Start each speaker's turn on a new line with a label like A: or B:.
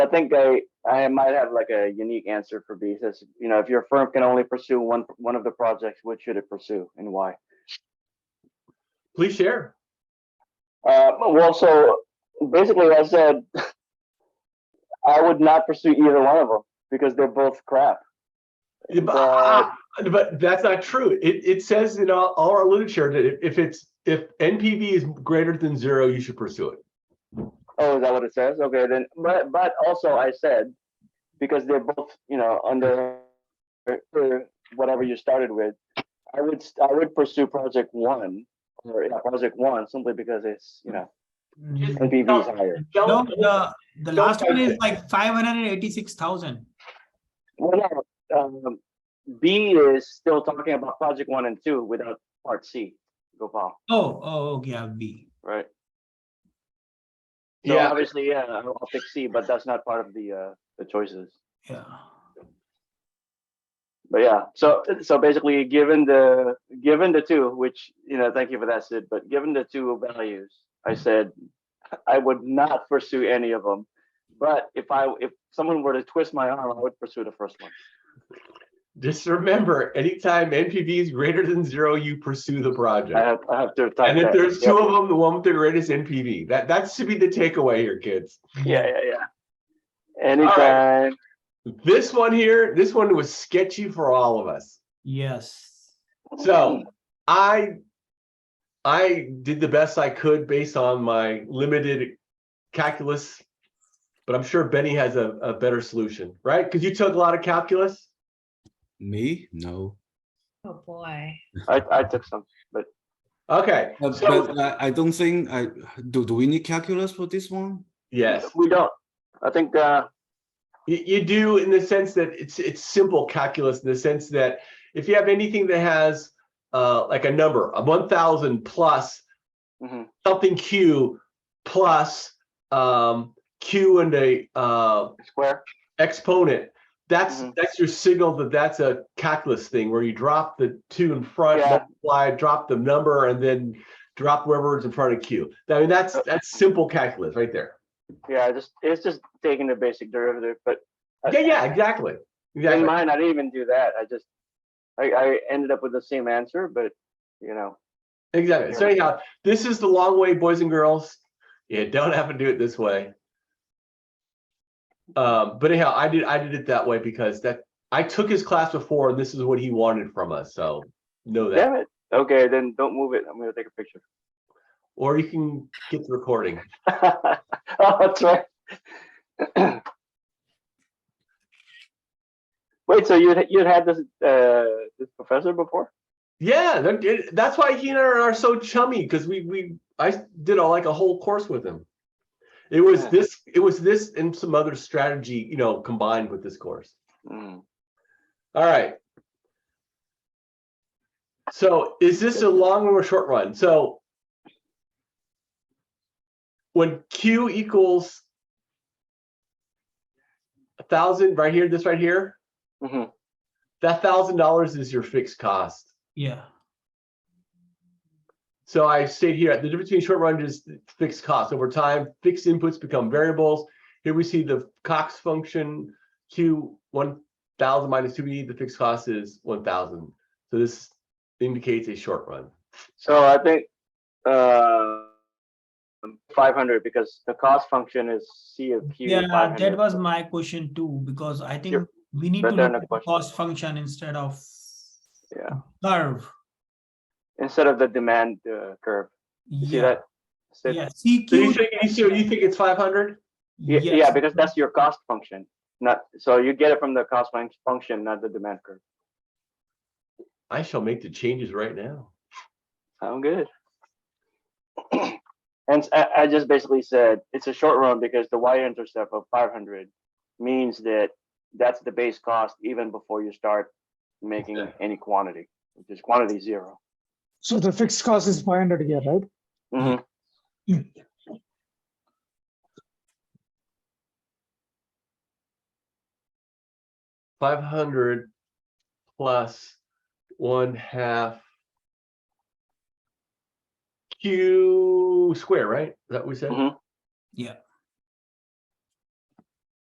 A: I think I I might have like a unique answer for B. It Says, you know, if your firm can only pursue one one of the projects, which should it pursue and why?
B: Please share.
A: Uh, well, so basically, I said I would not pursue either one of them because they're both crap.
B: Yeah,
A: uh,
B: But, ah, but that's not true. It, it says in all, all our literature that if- if it's, if NPV is greater than zero, you should pursue it.
A: Oh, is that what it says? Okay, then. But but also, I said because they're both you know under for whatever you started with. I would st- I would pursue project one or yeah, project one simply because it's you know
B: Just
A: NPV is higher.
C: No,
B: don't-
C: the, the
B: Don't
C: last one
B: touch
C: is
B: it.
C: like five hundred and eighty-six thousand.
A: Well, no, um, B is still talking about project one and two without part C, Gopal,
C: Oh, oh, okay, yeah, B.
A: right? So
B: Yeah,
A: obviously, yeah, I'll I'll pick C, but that's not part of the, uh, the choices.
C: Yeah.
A: But yeah, so, so basically, given the, given the two, which, you know, thank you for that, Sid, but given the two values, I said, I would not pursue any of them. But if I, if someone were to twist my arm, I would pursue the first one.
B: just remember, anytime NPV is greater than zero, you pursue the
A: I
B: project.
A: have, I have to. type
B: And if
A: that.
B: there's
A: Yep.
B: two of them, the one with the greatest NPV, that, that should be the takeaway here, kids.
A: Yeah, yeah, yeah. Anytime.
B: This one here, this one was sketchy for all of us.
C: Yes.
B: So I I did the best I could based on my limited calculus, but I'm sure Benny has a, a better solution, right? Because you took a lot of calculus.
D: Me? No.
E: Oh, boy.
A: I, I took some.
B: Okay,
D: But,
B: So-
D: but I, I don't think I do. Do we need calculus for this one?
B: yes,
A: We don't. I think, uh,
B: you, you do in the sense that it's it's simple calculus in the sense that if you have anything that has uh, like a number, a 1,000 plus
A: mhm,
B: something Q plus um, Q and a uh,
A: square.
B: exponent. That's
A: Mhm.
B: that's your signal that that's a calculus thing where you drop the two in front,
A: Yeah.
B: multiply, drop the number, and then drop wherever is in front of Q. I mean that's that's simple calculus right there.
A: Yeah, just, it's just taking the basic derivative, but. I-
B: Yeah, yeah, exactly.
A: In
B: Exactly.
A: mine, I didn't even do that. I just, I, I ended up with the same answer, but, you know,
B: exactly. So anyhow, this is the long way, boys and girls. You don't have to do it this way. Um, but anyhow, I did I did it that way because that I took his class before and this is what he wanted from us. So know that.
A: damn it. Okay, then don't move it. I'm gonna take a picture.
B: Or you can get the recording.
A: Oh, that's right. Wait, so you, you had this, uh, this professor before?
B: Yeah, that- it- that's why he and I are so chummy because we we I did a, like a whole course with him. It was
A: Yeah.
B: this, it was this and some other strategy, you know, combined with this course. Hmm.
A: Mm.
B: All right. So is this a long or a short run? So when Q equals a thousand right here, this right here,
A: Mhm.
B: that thousand dollars is your fixed cost.
C: Yeah.
B: So I state here, the difference between short run is fixed costs. Over time, fixed inputs become variables. Here we see the Cox function, Q one thousand minus two E, the fixed cost is one thousand. So this indicates a short run.
A: So I think, uh, five hundred, because the cost function is C of Q.
C: Yeah, that
A: 500.
C: was my question too, because I think
A: Yep.
C: we need to
A: Better than a
C: look at the
A: question.
C: cost function instead of
A: Yeah.
C: curve.
A: Instead of the demand, uh, curve. You see
C: Yeah,
A: that? Sid?
C: yeah,
B: So you
C: CQ.
B: think, you see, you think it's five hundred?
A: Ye- Yeah,
C: yes.
A: because that's your cost function, not, so you get it from the cost func- function, not the demand curve.
B: I shall make the changes right now.
A: Sound good? And s- I, I just basically said, it's a short run because the y-intercept of five hundred means that that's the base cost even before you start making
B: Okay.
A: any quantity, which is quantity zero.
F: So the fixed cost is five hundred here, right?
A: Mhm.
B: Five hundred plus one half Q square, right? Is that what we said?
A: Mhm.
C: Yeah.